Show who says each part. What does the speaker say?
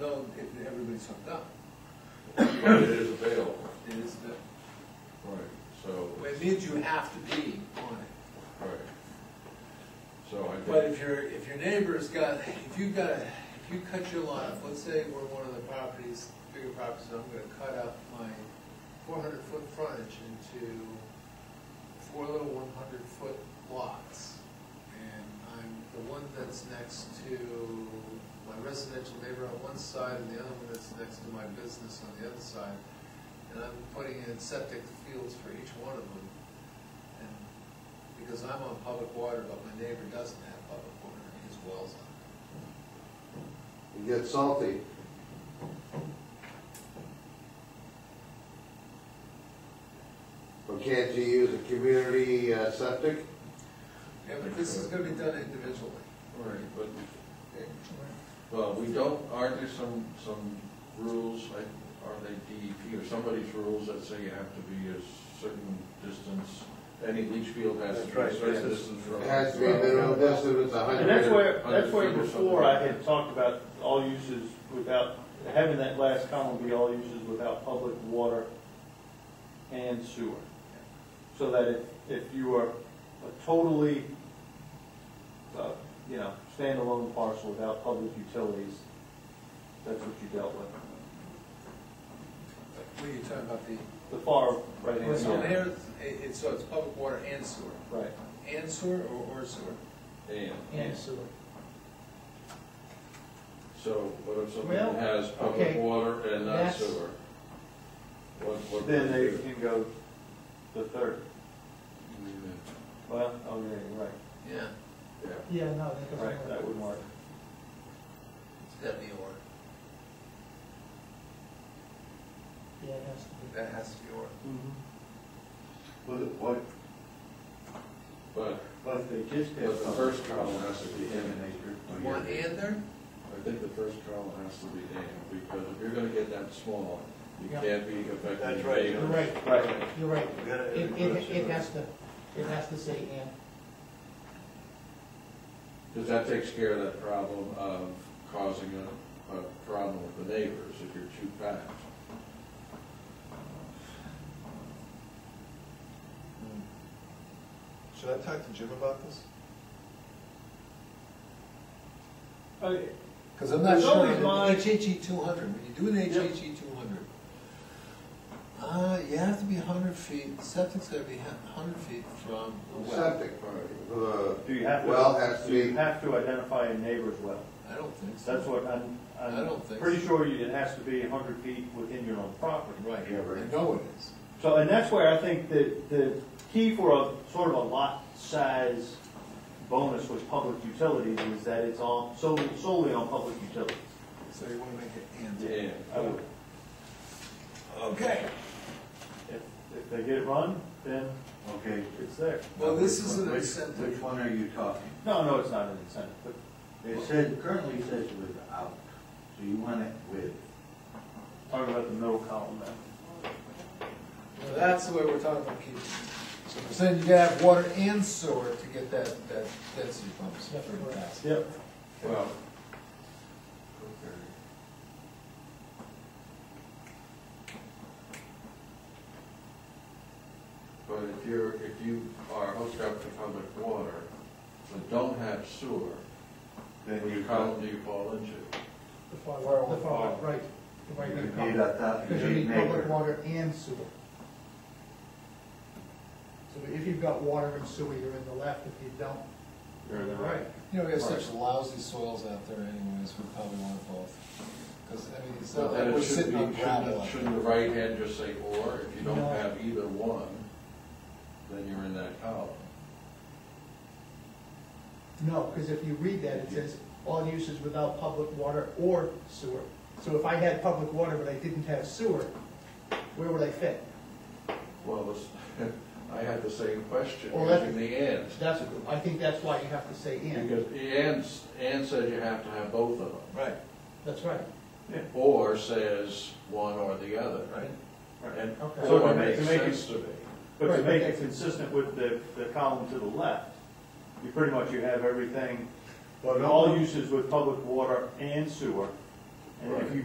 Speaker 1: known if everybody's hooked up.
Speaker 2: But it is available.
Speaker 1: It is, the-
Speaker 2: Right. So,
Speaker 1: it means you have to be on it.
Speaker 2: right. So I think.
Speaker 1: But if your, if your neighbor's got, if you've got, a- if you cut your lot up, let's say we're one of the properties, bigger properties, I'm gonna cut up my four hundred foot frontage into four little one hundred foot lots. And I'm the one that's next to my residential neighbor on one side and the other one that's next to my business on the other side. And I'm putting in septic fields for each one of them. And because I'm on public water, but my neighbor doesn't have public water, and his well's on.
Speaker 3: It gets salty. But can't you use a community uh, septic?
Speaker 1: Yeah, but this is gonna be done individually.
Speaker 2: Right, but, well, we don't, aren't there some, some rules, like, are they DEP or somebody's rules that say you have to be a certain distance? Any leach field has to
Speaker 4: That's
Speaker 2: be a
Speaker 4: right,
Speaker 2: certain
Speaker 4: yes.
Speaker 2: distance from.
Speaker 3: It has to be a minimum distance of a hundred.
Speaker 4: And that's where,
Speaker 2: Hundred
Speaker 4: that's where
Speaker 2: feet or something
Speaker 4: before
Speaker 2: like
Speaker 4: I
Speaker 2: that.
Speaker 4: had talked about all uses without, having that last column be all uses without public water and sewer. So that if, if you are a totally, uh, you know, standalone parcel without public utilities, that's what you dealt with.
Speaker 1: What are you talking about, the,
Speaker 4: The far right hand
Speaker 1: so
Speaker 4: side.
Speaker 1: there, it, it- so it's public water and sewer,
Speaker 4: Right.
Speaker 1: and sewer or, or sewer?
Speaker 2: And,
Speaker 5: And sewer.
Speaker 2: so what if something
Speaker 5: Well,
Speaker 2: has public
Speaker 5: okay.
Speaker 2: water and not
Speaker 5: That's-
Speaker 2: sewer? What, what?
Speaker 4: Then
Speaker 2: would you
Speaker 4: they
Speaker 2: do?
Speaker 4: can go the third. Well, oh yeah, you're right.
Speaker 1: Yeah,
Speaker 2: Yeah,
Speaker 5: Yeah, no, that doesn't
Speaker 4: Right,
Speaker 5: work.
Speaker 4: that would work.
Speaker 1: it's gotta be or,
Speaker 5: Yeah, it has to be.
Speaker 1: that has to be or.
Speaker 6: But what,
Speaker 2: but,
Speaker 6: but if they just
Speaker 2: but
Speaker 6: have.
Speaker 2: the first column has to be in.
Speaker 1: One and there?
Speaker 2: I think the first column has to be named, because if you're gonna get that small, you
Speaker 5: Yeah.
Speaker 2: can't be affecting.
Speaker 6: That's right.
Speaker 5: You're right,
Speaker 4: Right.
Speaker 5: you're right.
Speaker 6: We gotta-
Speaker 5: It, it, it has to, it has to say and.
Speaker 2: Because that takes care of that problem of causing a, a problem with the neighbors if you're too fast.
Speaker 1: Mm-hmm. Should I talk to Jim about this?
Speaker 4: Okay.
Speaker 1: Cause I'm not
Speaker 4: It's
Speaker 1: sure,
Speaker 4: always my-
Speaker 1: HHE two hundred, when you do an
Speaker 4: Yeah.
Speaker 1: HHE two hundred, uh, you have to be hundred feet, septic's gotta be hundred feet from the well.
Speaker 3: Septic, uh,
Speaker 4: Do you have to?
Speaker 3: well has to
Speaker 4: do You
Speaker 3: be,
Speaker 4: have to identify a neighbor's well.
Speaker 1: I don't think so.
Speaker 4: That's what I'm,
Speaker 1: I don't think
Speaker 4: I'm pretty
Speaker 1: so.
Speaker 4: sure you- it has to be hundred feet within your own property.
Speaker 1: Right,
Speaker 3: Yeah, right.
Speaker 1: I know it is.
Speaker 4: So, and that's where I think the, the key for a, sort of a lot size bonus with public utilities is that it's on, solely, solely on public utilities.
Speaker 1: So you wanna make it and.
Speaker 2: And,
Speaker 4: I would,
Speaker 1: Okay,
Speaker 4: if, if they get it run, then
Speaker 6: Okay.
Speaker 4: it's there.
Speaker 1: well, this is an
Speaker 6: Which-
Speaker 1: incentive.
Speaker 6: Which one are you talking?
Speaker 4: No, no, it's not an incentive, but
Speaker 6: It said, currently it says without, so you want it with.
Speaker 4: talking about the middle column there.
Speaker 1: Well, that's the way we're talking about keeping. So we're saying you gotta have water and sewer to get that, that density bumps.
Speaker 5: That's correct.
Speaker 4: Yep.
Speaker 2: well, but if you're, if you are hooked up to public water, but don't have sewer,
Speaker 6: Then
Speaker 2: what
Speaker 6: you
Speaker 2: column do you fall into?
Speaker 5: The far,
Speaker 1: Well,
Speaker 5: the far,
Speaker 1: well.
Speaker 5: right. The
Speaker 6: You
Speaker 5: right hand
Speaker 6: need
Speaker 5: column.
Speaker 6: a top, you
Speaker 5: Because you
Speaker 6: need
Speaker 5: need public
Speaker 6: neighbor.
Speaker 5: water and sewer. So if you've got water and sewer, you're in the left, if you don't,
Speaker 4: You're in the right.
Speaker 1: You know, we have such lousy soils out there anyways, we probably want both. Cause, I mean, it's
Speaker 2: But
Speaker 1: not
Speaker 2: then
Speaker 1: like
Speaker 2: it
Speaker 1: we're
Speaker 2: should
Speaker 1: sitting on
Speaker 2: be,
Speaker 1: gravel.
Speaker 2: shouldn't,
Speaker 1: out
Speaker 2: shouldn't the right hand just say or, if you don't
Speaker 5: No.
Speaker 2: have either one, then you're in that column.
Speaker 5: No, because if you read that, it says, all uses without public water or sewer. So if I had public water but I didn't have sewer, where would I fit?
Speaker 2: Well, this, I had the same question,
Speaker 5: Well, that-
Speaker 2: using the ands.
Speaker 5: That's, I think that's why you have to say and.
Speaker 2: Because ands, and says you have to have both of them,
Speaker 1: Right,
Speaker 5: That's right.
Speaker 2: or says one or the other.
Speaker 1: right.
Speaker 2: And
Speaker 5: Okay.
Speaker 4: So to
Speaker 2: or
Speaker 4: make- to
Speaker 2: makes
Speaker 4: make it-
Speaker 2: sense to me.
Speaker 4: But to
Speaker 5: Right,
Speaker 4: make
Speaker 5: but
Speaker 4: it consistent with the, the column to the left, you pretty much, you have everything,
Speaker 6: But
Speaker 4: all
Speaker 6: all you,
Speaker 4: uses with public water and sewer, And if you